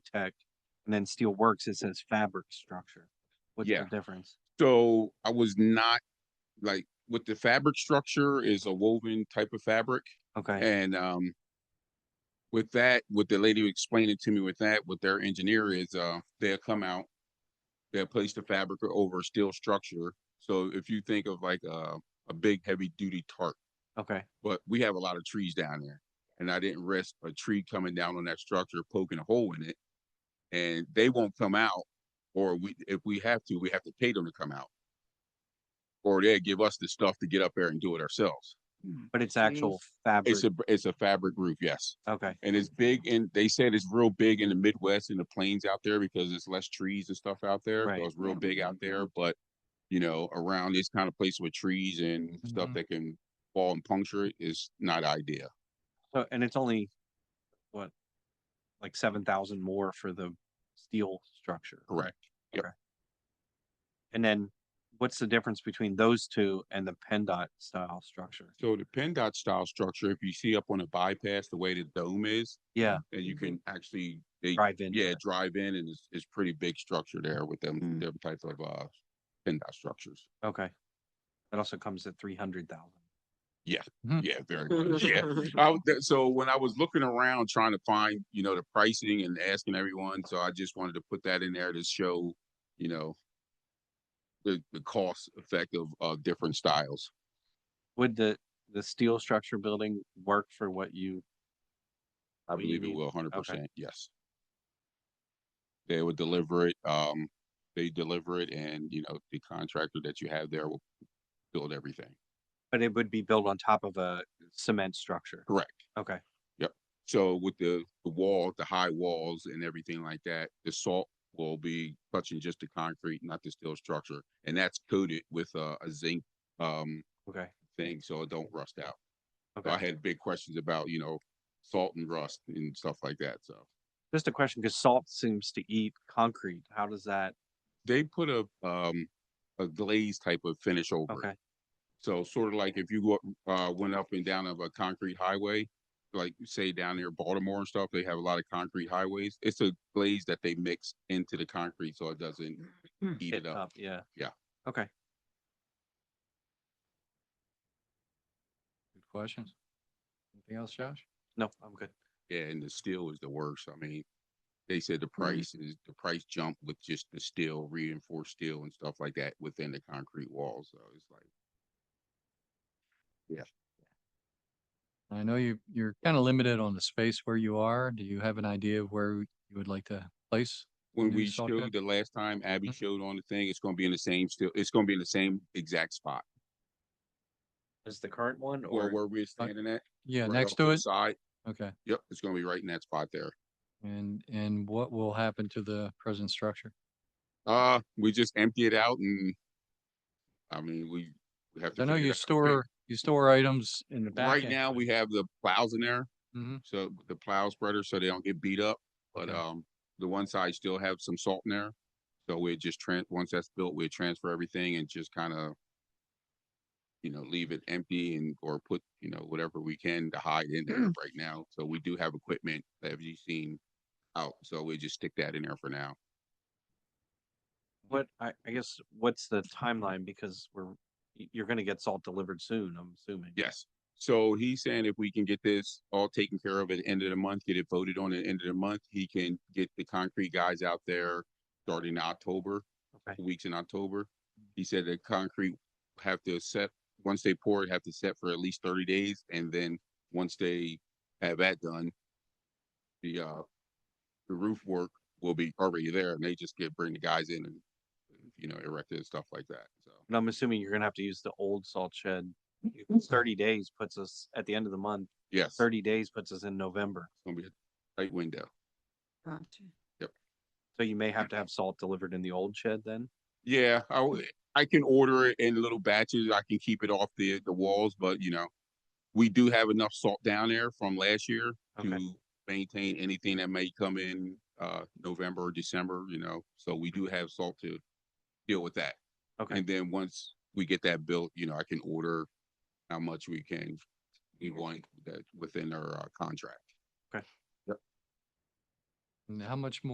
architect, and then steel works, it says fabric structure. What's Yeah. the difference? So I was not, like, with the fabric structure is a woven type of fabric Okay, and, um, with that, with the lady who explained it to me with that, with their engineer is, uh, they'll come out, they'll place the fabric over a steel structure. So if you think of like, uh, a big heavy duty tarp, okay, but we have a lot of trees down there. And I didn't risk a tree coming down on that structure, poking a hole in it. And they won't come out, or we, if we have to, we have to pay them to come out. Or they give us the stuff to get up there and do it ourselves. but it's actual fabric, It's a, it's a fabric roof, yes. okay, And it's big and they said it's real big in the Midwest and the plains out there because it's less trees and stuff out there. Right. So it's real big out there, but you know, around this kind of place with trees and stuff Mhm. that can fall and puncture it is not idea. so, and it's only, what? Like seven thousand more for the steel structure. Correct. And then what's the difference between those two and the PennDOT style structure? So the PennDOT style structure, if you see up on a bypass, the way the dome is, Yeah, and you Mhm. can actually, they, drive in. yeah, drive in and it's, it's pretty big structure there with them, Mm. them type of, uh, PennDOT structures. Okay. That also comes at three hundred thousand. Hmm. Yeah, very much. Yeah. I, w- that- so when I was looking around trying to find, you know, the pricing and asking everyone, so I just wanted to put that in there to show, you know, the, the cost effect of, of different styles. Would the, the steel structure building work for what you? I what you believe it need? will, hundred percent, yes. They would deliver it, um, they deliver it and, you know, the contractor that you have there will build everything. But it would be built on top of a cement structure. Correct. Okay, So with the, the wall, the high walls and everything like that, the salt will be touching just the concrete, not the steel structure. And that's coated with a, a zinc, um, okay, thing, so it don't rust out. So I okay. had big questions about, you know, salt and rust and stuff like that, so. Just a question, because salt seems to eat concrete. How does that? They put a, um, a glaze type of finish over it. Okay, So sort of like if you go, up- uh, went up and down of a concrete highway, like say down near Baltimore and stuff, they have a lot of concrete highways. It's a glaze that they mix into the concrete so it doesn't heat hit it uh, up. up, yeah. Yeah. Okay, Good questions. Anything else, Josh? no, I'm good. Yeah, and the steel is the worst. I mean, they said the price is, the price jump with just the steel, reinforced steel and stuff like that within the concrete walls. So it's like, And I know you, you're kind of limited on the space where you are. Do you have an idea of where you would like to place? when New we salt showed shed? the last time Abby Mhm. showed on the thing, it's gonna be in the same steel, it's gonna be in the same exact spot Is the current one or or? where we're standing at. Uh, Yeah, right next off to the it? Side, Okay. Yep, it's gonna be right in that spot there. And, and what will happen to the present structure? Uh, we just empty it out and, I mean, we we have to. I know figure it out. I you mean, store, you store items in the back. Right end, now, but- we have the plows in there, Mhm. so the plow spreader, so they don't get beat up. But Okay. um, the one side still have some salt in there. So we just tran, once that's built, we transfer everything and just kind of, you know, leave it empty and, or put, you know, whatever we can to hide in there right now. So we do have equipment that you've seen out, so we just stick that in there for now. What, I, I guess, what's the timeline? Because we're, y- you're gonna get salt delivered soon, I'm assuming. Yes. So he's saying if we can get this all taken care of at the end of the month, get it voted on at the end of the month, he can get the concrete guys out there starting in October, Okay. weeks in October. He said the concrete have to set, once they pour it, have to set for at least thirty days. And then once they have that done, the, uh, the roof work will be already there and they just get, bring the guys in and, you know, erect it and stuff like that. So. And I'm assuming you're gonna have to use the old salt shed. It's Thirty days puts us at the end of the month. Yes, it's Thirty days puts us in November. gonna be a tight window. So you may have to have salt delivered in the old shed then? Yeah, I, w- I can order it in little batches. I can keep it off the, the walls, but you know, we do have enough salt down there from last year Okay. to maintain anything that may come in, uh, November or December, you know, so we do have salt to deal with that. Okay, And then once we get that built, you know, I can order how much we can, we want that within our uh, contract. And how much more